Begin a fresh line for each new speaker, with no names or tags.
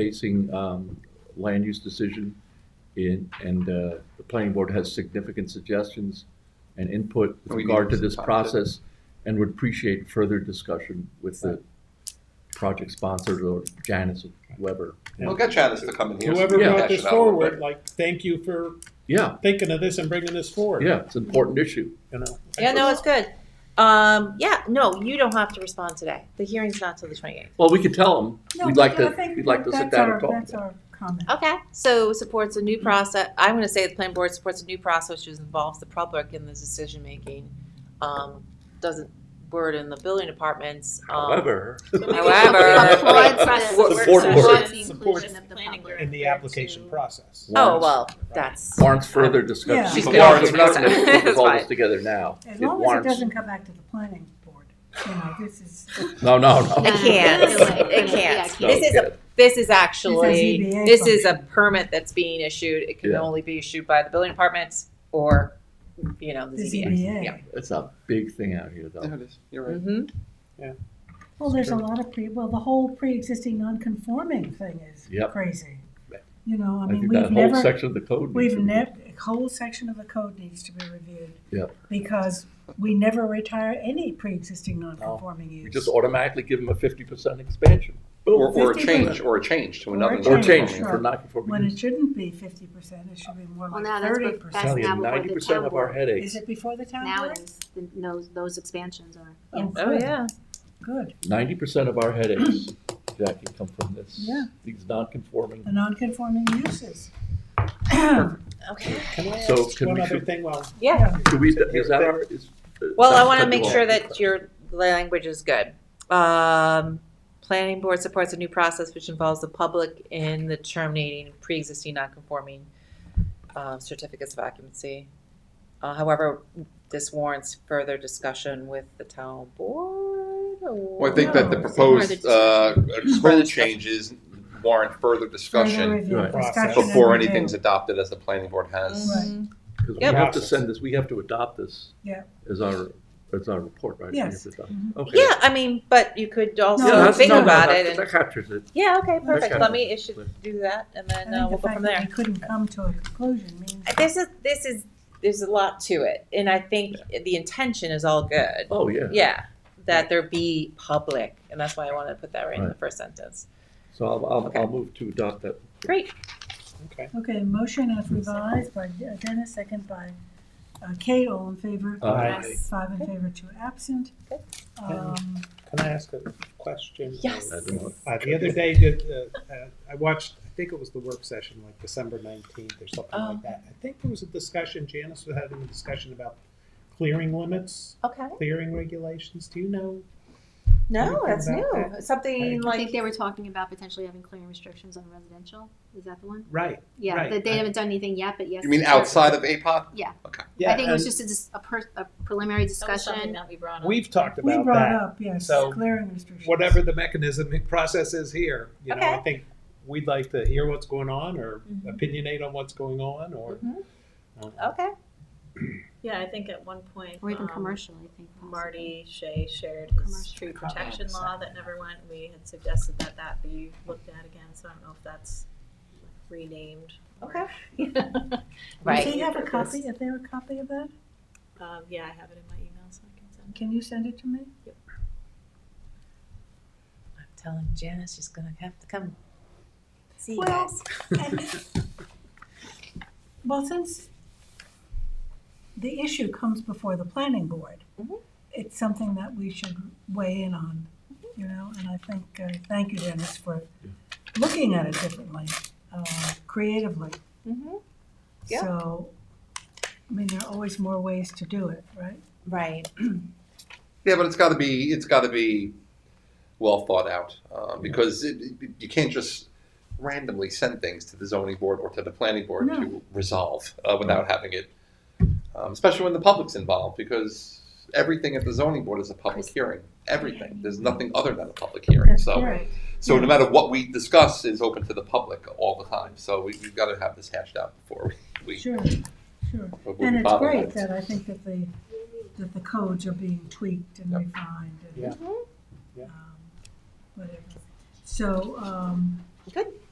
facing um, land use decision. in- And uh, the planning board has significant suggestions and input with
We need
regard to
some
this
time to-
process and would appreciate further discussion with the project sponsors or Janice or whoever.
We'll get Janice to come in here. so
Whoever
we can
brought
hash
this
it out a little bit.
forward, like, thank you for
Yeah,
thinking of this and bringing this forward.
yeah, it's an important issue.
You know.
Yeah, no, it's good. Um, yeah, no, you don't have to respond today. The hearing's not till the twenty eighth.
Well, we could tell them,
No,
we'd
but
like
I
to,
think
we'd like to sit
that's
down
our-
and talk.
That's our comment.
Okay, so supports a new process. I'm going to say the planning board supports a new process which involves the public in the decision making. Um, doesn't burden the building departments. Um,
However.
However-
Support
work.
the
Support
inclusion of the
planning
public.
In the application process.
oh well, that's
Warrants further discussion.
Yeah. She's
But warrants-
gonna argue
we're not
next
gonna
time.
put all this
That's
together now.
As
It
long as it
warrants-
doesn't come back to the planning board, you know, this is,
No, no, no.
I can't. I can't.
No,
This is
yeah.
this is actually
This is ZBA
this is a
function.
permit that's being issued. It can
Yeah.
only be issued by the building departments or you know the
this
ZBA.
ZBA.
Yeah.
It's a big thing out here,
There
though.
it is. You're right.
Mm-hmm.
Well, there's a lot of pre, well, the whole pre-existing non-conforming thing is
Yep.
crazy. You know, I
I
mean,
think
we've
that whole
never,
section of the code. needs
we've
to be-
never, a whole section of the code needs to be reviewed.
Yep.
Because we never retire any pre-existing non-conforming
We
use.
just automatically give them a fifty percent expansion. Boom.
Or, or a
50%.
change, or a change to
Or
another.
a
Or change
Sure.
for
When
non-conforming
it
use.
shouldn't be fifty percent, it should be more
Well,
like
now that's,
thirty
what-
percent.
that's
Tell you,
now before
ninety
the
percent
town
of our
board.
Is
headaches,
it before the town
Now
board?
it is, the- those, those expansions are.
Oh,
Oh
good,
yeah.
Good.
ninety percent of our headaches, Jackie, come from this.
Yeah.
These non-conforming.
The non-conforming uses.
Okay.
Can I
So
ask
can
one
we-
other thing while
Yeah.
Do we, is that our, is? uh,
Well, I
that's
want to
cut
make
you off.
sure that your language is good. Um, planning board supports a new process which involves the public in the terminating pre-existing non-conforming uh, certificates of occupancy. Uh, however, this warrants further discussion with the town board. or-
Well, I think that the
No.
proposed, uh,
Further
code
discussion.
changes warrant further
Further
discussion
review,
Right.
discussion and
before
review.
anything's adopted as the planning board has.
Mhm.
Because we
Yep.
have to send this, we have to adopt this.
Yeah.
As our, as our report, right? We have
Yes.
to adopt-
Mhm.
Okay.
Yeah, I mean, but you could
No,
also
that's-
think
no, no,
about
that-
it and,
That captures it.
yeah, okay, perfect.
Okay.
Let me, it should do that and then
I
uh, we'll
think the
go from
fact
there.
that we couldn't come to a conclusion means.
This is this is there's a lot to it, and I think the intention is all good.
Oh, yeah.
Yeah, that there be public, and that's why I wanted to put that right, in the first sentence.
So I'll, I'll,
Okay.
I'll move to adopt that.
Great.
Okay, motion as revised by Dennis, second by uh, Kate, all in favor.
Aye.
Aye.
Five in favor, two absent.
Okay.
Um,
Can I ask a question?
Yes.
I don't know.
Uh, the other day, did, uh, uh, I watched, I think it was the work session, like December nineteenth or something
Oh.
Um.
like that. I think there was a discussion, Janice was having a discussion about clearing limits,
Okay.
clearing regulations. Do you know?
No,
Anything
that's new.
about
Something
I think
like
they were talking about potentially having clearing restrictions on residential. Is that the one?
Right.
Yeah,
Right.
that they haven't done anything yet, but yes.
You mean
they're-
outside of APOC?
Yeah,
I think it was
and
just a, dis- a per- a preliminary discussion.
that we brought
We've talked
We
about
brought
that.
up, yes,
So,
clearing restrictions.
Whatever the mechanism and process is here, you know, I
Okay.
think we'd like to hear what's going on or
Mhm.
opinionate on what's going on or.
Mhm.
uh,
okay.
Yeah, I think at one point.
Or even
um,
commercial, I think. possibly.
Marty Shea shared his
Commercial.
tree
Comment,
protection
so.
law that never went. We had suggested that that be looked at again, so I don't know if that's renamed.
Okay.
Does
Right.
he have a copy, is there a copy of that?
Um, yeah, I have it in my email, so I can send
Can you send it to me?
I'm telling Janice she's gonna have to come. See you
Well,
guys.
and- Well, since the issue comes before the planning board,
Mhm.
it's something that we should weigh in on, you know, and I think, uh, thank you, Dennis, for looking at it differently, uh, creatively.
Mhm. Yeah.
So, I mean, there are always more ways to do it, right?
Right.
Yeah, but it's gotta be, it's gotta be well thought out, uh, because it, it- you can't just randomly send things to the zoning board or to the planning board
No.
to resolve, uh, without having it, um, especially when the public's involved, because everything at the zoning board is a public hearing, everything. There's nothing other than a public hearing, so.
Right.
So no matter what we discuss is open to the public all the time. So we, we've got to have this hashed out before we. we
Sure, sure.
before we
And it's
bother
great
with it.
that I think that the, that the codes are being tweaked and
Yep.
refined and.
Yeah.
um,
Yeah.
Whatever. So, um,
Good.